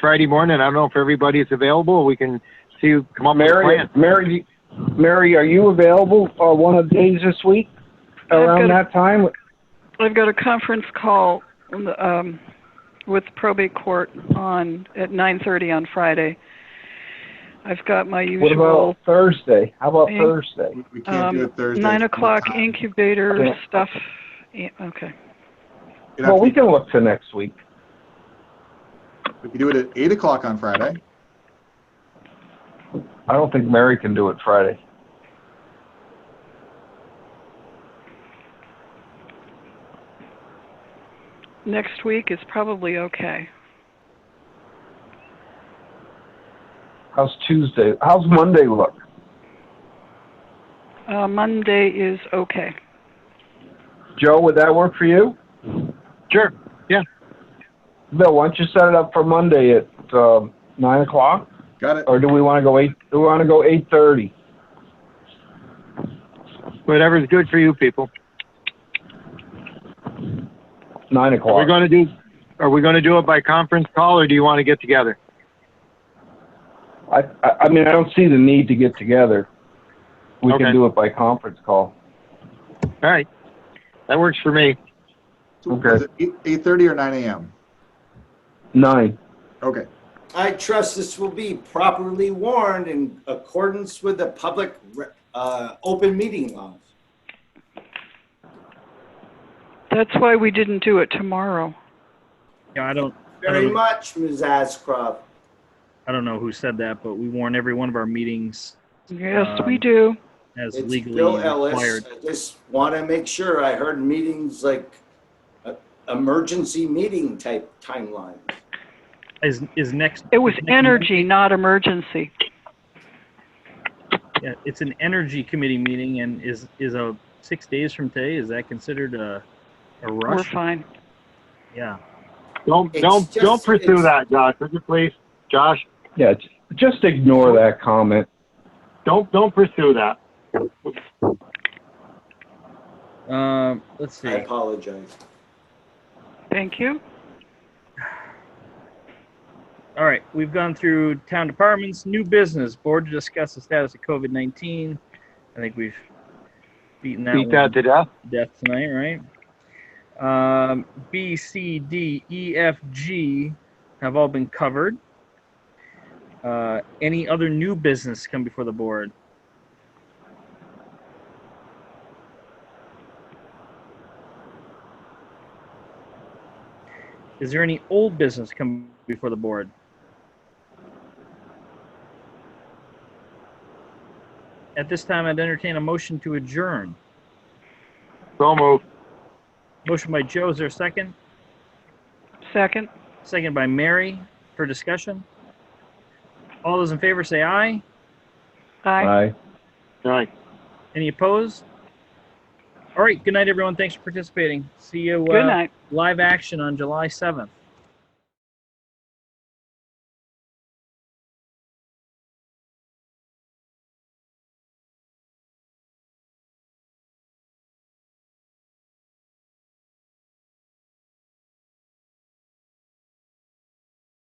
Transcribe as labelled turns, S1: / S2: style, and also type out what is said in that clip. S1: Friday morning. I don't know if everybody's available. We can see you come up with a
S2: Mary,
S1: plan.
S2: Mary, Mary, are you available uh, one of the days this week around
S3: I've got a-
S2: that time?
S3: I've got a conference call um, with probate court on at 9:30 on Friday. I've got my
S2: What
S3: usual
S2: about Thursday? How about
S3: Hey.
S2: Thursday?
S4: We can't do
S3: um,
S4: it Thursday.
S3: nine o'clock
S4: It'd
S3: incubator
S2: Okay.
S3: stuff. Yeah, Okay.
S4: have
S2: Well,
S4: to
S2: we
S4: be-
S2: can look to next week.
S4: We could do it at eight o'clock on Friday.
S2: I don't think Mary can do it Friday.
S3: Next week is probably okay.
S2: How's Tuesday? How's Monday look?
S3: Uh, Monday is okay.
S2: Joe, would that work for you?
S1: Sure.
S2: Bill, why don't you set it up for Monday at um, nine o'clock,
S4: Got it.
S2: or do we want to go eight? Do we want to go eight thirty?
S1: Whatever's good for you people.
S2: Nine
S1: Are we
S2: o'clock.
S1: going to do? Are we going to do it by conference call, or do you want to get together?
S2: I, I I mean, I don't see the need to get together. We
S1: Okay.
S2: can do it by conference call.
S1: All right, that works for me.
S2: Okay.
S4: Eight thirty or nine a.m.
S2: Nine.
S4: Okay.
S5: I trust this will be properly warned in accordance with the public, re- uh, open meeting laws.
S3: That's why we didn't do it tomorrow.
S6: Yeah, I don't,
S5: Very
S6: Um,
S5: much, Ms. Ascroft.
S6: I don't know who said that, but we warn every one of our meetings
S3: Yes, we
S6: Um,
S3: do.
S6: as
S5: It's
S6: legally
S5: Bill Ellis.
S6: required.
S5: I just want to make sure. I heard meetings like uh, emergency meeting type timelines.
S6: Is, is next.
S3: It was
S6: is next Mon-
S3: energy, not emergency.
S6: yeah, It's an energy committee meeting and is, is a, six days from today, is that considered a, a
S3: We're
S6: rush?
S3: fine.
S6: Yeah.
S1: Don't
S5: It's
S1: don't
S5: just-
S1: don't pursue
S5: it's-
S1: that, Josh. Would you please, Josh?
S2: Yeah, j- just ignore that comment.
S1: Don't don't pursue that.
S6: Um, let's
S5: I
S6: see.
S5: apologize.
S3: Thank you.
S6: All right, we've gone through town departments, new business, board to discuss the status of COVID nineteen. I think we've beaten that
S1: Beat
S6: one
S1: that to death.
S6: to death tonight, right? Um, B, C, D, E, F, G have all been covered. Uh, any other new business come before the board? Is there any old business come before the board? At this time, I'd entertain a motion to adjourn.
S1: So move.
S6: Motion by Joe, is there a second?
S3: Second.
S6: Second by Mary for discussion. All those in favor say aye.
S3: Aye.
S2: Aye.
S1: All right.
S6: Any opposed? All right, good night, everyone. Thanks for participating. See you
S3: Good
S6: uh,
S3: night.
S6: live action on July 7th.